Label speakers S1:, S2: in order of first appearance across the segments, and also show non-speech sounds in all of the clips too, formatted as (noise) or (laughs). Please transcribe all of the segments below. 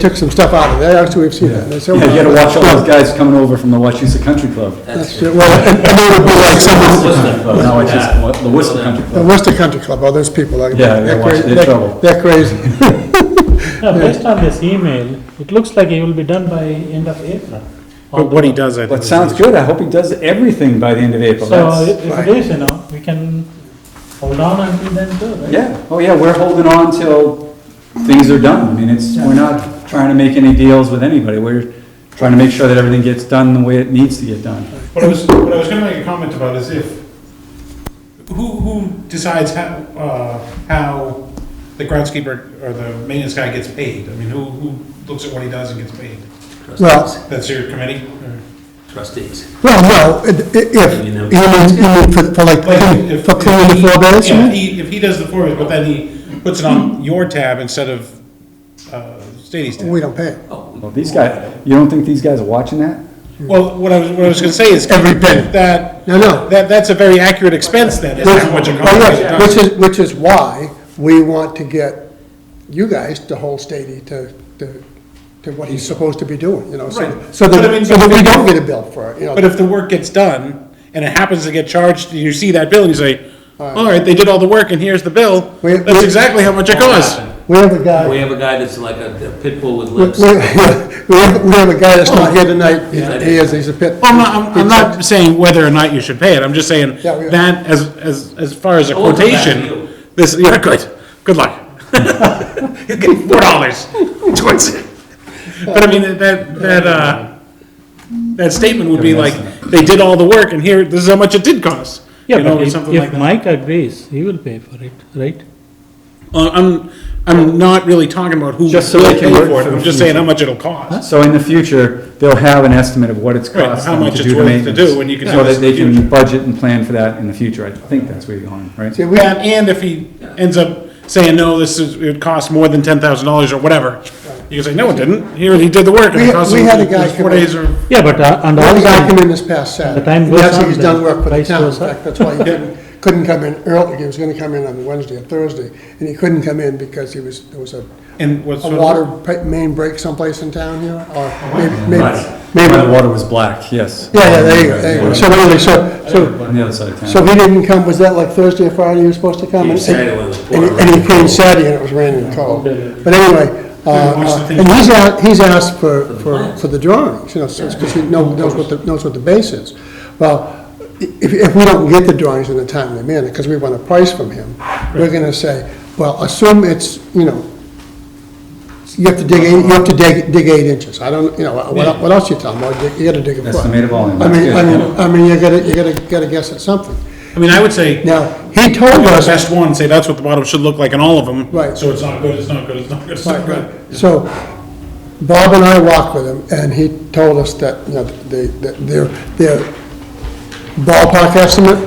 S1: took some stuff out of it, actually, we've seen that. There's
S2: Yeah,
S1: several-
S2: you gotta watch all those guys coming over from the Wachusett Country Club.
S3: (laughs)
S1: That's true. Well, and and it would be like someone,
S2: No, it's just wa- the Worcester Country
S1: the
S2: Club.
S1: Worcester Country Club, oh, those people, like,
S2: Yeah, they're
S1: they're
S2: watching-
S1: crazy.
S2: they're trouble.
S1: They're crazy.
S4: (laughs)
S5: Now, based on this email, it looks like it will be done by end of April.
S6: But what he does, I think.
S2: That
S6: is-
S2: sounds good, I hope he does everything by the end of April,
S5: So
S2: that's,
S5: if if it is, you know, we can hold on until then too, right?
S2: yeah, oh yeah, we're holding on till things are done, I mean, it's, we're not trying to make any deals with anybody, we're trying to make sure that everything gets done the way it needs to get done.
S4: What I was, what I was gonna make a comment about is if, who, who decides how, uh, how the groundskeeper or the maintenance guy gets paid? I mean, who, who looks at what he does and gets paid?
S1: Well,
S4: That's your committee?
S3: trustees.
S1: well, no, it- i- if, you mean, you mean for, for like,
S4: Like, if-
S1: for cleaning the
S4: if he-
S1: floor beds? you
S4: yeah,
S1: mean?
S4: if he, if he does the floor beds, but then he puts it on your tab instead of, uh, Stady's tab.
S1: We don't pay.
S3: Oh,
S2: Well, these guys, you don't think these guys are watching that?
S4: Well, what I was, what I was gonna say is.
S1: Every penny.
S4: That,
S1: No, no.
S4: that, that's a very accurate expense then, is how much it
S1: Oh, yes,
S4: costs.
S1: Which is, which is why we want to get you guys to hold Stady to, to, to what he's supposed to be doing, you know, so,
S4: Right.
S1: so
S4: But I
S1: that,
S4: mean,
S1: so that
S4: but-
S1: we don't get a bill for it, you know.
S4: But if the work gets done, and it happens to get charged, you see that bill and you say, all right, they did all the work and here's the bill,
S1: We-
S4: that's
S1: we-
S4: exactly how much it costs.
S1: We have a guy.
S3: We have a guy that's like a a pit bull with
S1: We,
S3: lips.
S1: we we have, we have a guy that's
S4: Oh.
S1: not here tonight, he he is, he's a pit.
S4: Well, I'm not, I'm- I'm not saying whether or not you should pay it, I'm just saying
S1: Yeah, we-
S4: that as, as, as far as a
S3: Oh, it's a bad deal.
S4: quotation, this, yeah, good, good (laughs) luck. You're getting four dollars towards it. But I mean, that, that, uh, that statement would be like, they did all the work and here, this is how much it did cost. you
S5: Yeah,
S4: know,
S5: but
S4: or
S5: if,
S4: something like
S5: if
S4: that.
S5: Mike agrees, he will pay for it, right?
S4: Uh, I'm, I'm not really talking about who will
S2: Just so they
S4: pay
S2: can work
S4: for it,
S2: for
S4: I'm
S2: the
S4: just saying how much it'll cost.
S2: So in the future, they'll have an estimate of what it's
S4: Right,
S2: cost
S4: how
S2: them
S4: much
S2: to
S4: it's
S2: do the
S4: worth to
S2: maintenance.
S4: do, and you can
S2: So
S4: tell us
S2: that
S4: in
S2: they
S4: the
S2: can
S4: future.
S2: budget and plan for that in the future, I think that's where you're going, right?
S1: See, we,
S4: And, and if he ends up saying, no, this is, it cost more than ten thousand dollars or whatever, you can say, no, it didn't, here, he did the work, and
S1: We
S4: it
S1: had-
S4: cost
S1: we
S4: him
S1: had a
S4: it
S1: guy
S4: was four
S1: come in.
S4: days or.
S5: Yeah, but, uh, and
S1: we had a guy come
S5: also,
S1: in this past Saturday.
S5: The time
S1: And
S5: goes
S1: that's-
S5: on,
S1: He's done
S5: the
S1: work for the
S5: price
S1: town, in
S5: goes up.
S1: fact, that's
S4: (laughs)
S1: why he couldn't, couldn't come in early, he was gonna come in on Wednesday or Thursday, and he couldn't come in because he was, there was a,
S4: And what's.
S1: a water pa- main break someplace in town here,
S4: Oh,
S1: or maybe,
S2: Right.
S1: maybe,
S2: Maybe the
S1: maybe,
S2: water was black, yes.
S1: yeah, yeah, there you go, there you go, so anyway, so, so,
S2: On the other side of town.
S1: so he didn't come, was that like Thursday or Friday he was supposed to come?
S3: He
S1: And-
S3: said it was
S1: And he- and he came Saturday and it was raining and cold. But anyway, uh,
S4: What's the
S1: uh,
S4: thing?
S1: and he's asked, he's asked for, for, for the drawings, you know, because he know- knows what the, knows what the base is. Well, if, if we don't get the drawings in a timely manner, because we want a price from him, we're gonna say, well, assume it's, you know, you have to dig, eight- you have to dig, dig eight inches. I don't, you know, what, el- what else you tell him? Well, you- you gotta dig a foot.
S2: Estimated volume,
S1: I mean, I
S2: that's good.
S1: mean, I mean, you gotta, you gotta, gotta guess at something.
S4: I mean, I would say,
S1: Now, he told
S4: the
S1: us.
S4: best one, say that's what the bottom should look like in all of them.
S1: Right.
S4: So it's not good, it's not good, it's not good, it's not
S1: Right,
S4: good.
S1: right. So Bob and I walked with him, and he told us that, you know, they, that their, their ballpark estimate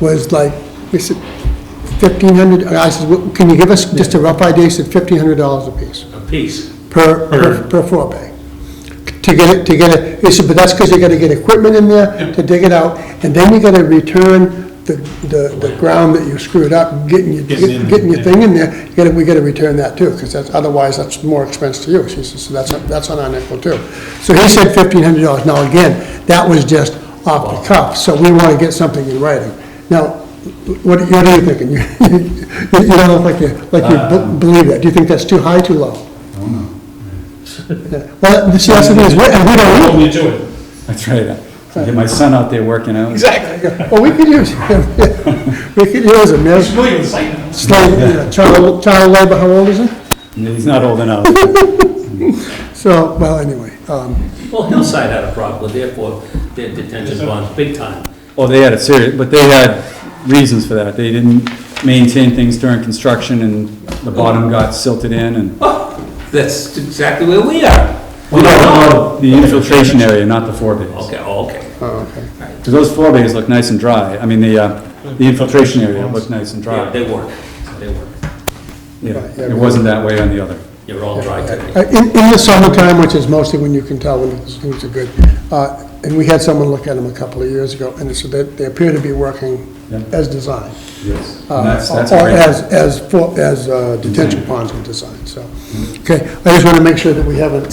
S1: was like, we said, fifteen hundred, I said, "Well, can you give us just a rough idea? He said fifteen hundred dollars apiece
S3: A piece.
S1: per, per, per four bay. To get it, to get it, he said, but that's because you gotta get equipment in there to dig it out, and then you gotta return the, the, the ground that you screwed up, getting your,
S4: Getting in there,
S1: getting your
S4: yeah.
S1: thing in there, you gotta, we gotta return that too, because that's, otherwise that's more expense to you, she says, so that's, that's on our nickel too. So he said fifteen hundred dollars, now again, that was just off the cuff, so we wanna get something in writing. Now, what, what are you thinking? (laughs) You, you don't look like you, like you be- believe that, do you think that's too high, too low? Well, see, that's the thing, is, we- and we
S4: Hold
S1: don't
S4: me to it.
S2: That's right. I Get my son out there working out.
S1: know. Well, we could use him, (laughs) we could use him,
S4: It's
S1: there's
S4: really exciting.
S1: slave, you know, child, child labor, how old is he?
S2: He's not old enough.
S1: So, well, anyway, um,
S3: Well, Hillside had a problem, therefore, their detention bonds, big time.
S2: Well, Oh, they had a serious, but they had reasons for that. They didn't maintain things during construction and the bottom got silted in and.
S3: Oh, That's exactly where we are.
S2: We know The infiltration area, not the four bays.
S3: Okay, oh, okay.
S1: oh, okay.
S2: Because those four bays look nice and dry. I mean, the, uh, the infiltration area looked nice and dry.
S3: Yeah, they work, they work.
S2: Yeah, It wasn't that way on the other.
S3: You're all dry today.
S1: Uh, In, in the summertime, which is mostly when you can tell when the schools are good, uh, and we had someone look at them a couple of years ago, and so they, they appear to be working
S2: Yeah.
S1: as designed.
S2: Yes.
S1: uh,
S2: And that's, that's. a
S1: Or
S2: great-
S1: as,
S2: Mm-hmm.
S1: as, for- as uh, detention ponds were designed, so. Okay, I just want to make sure that we haven't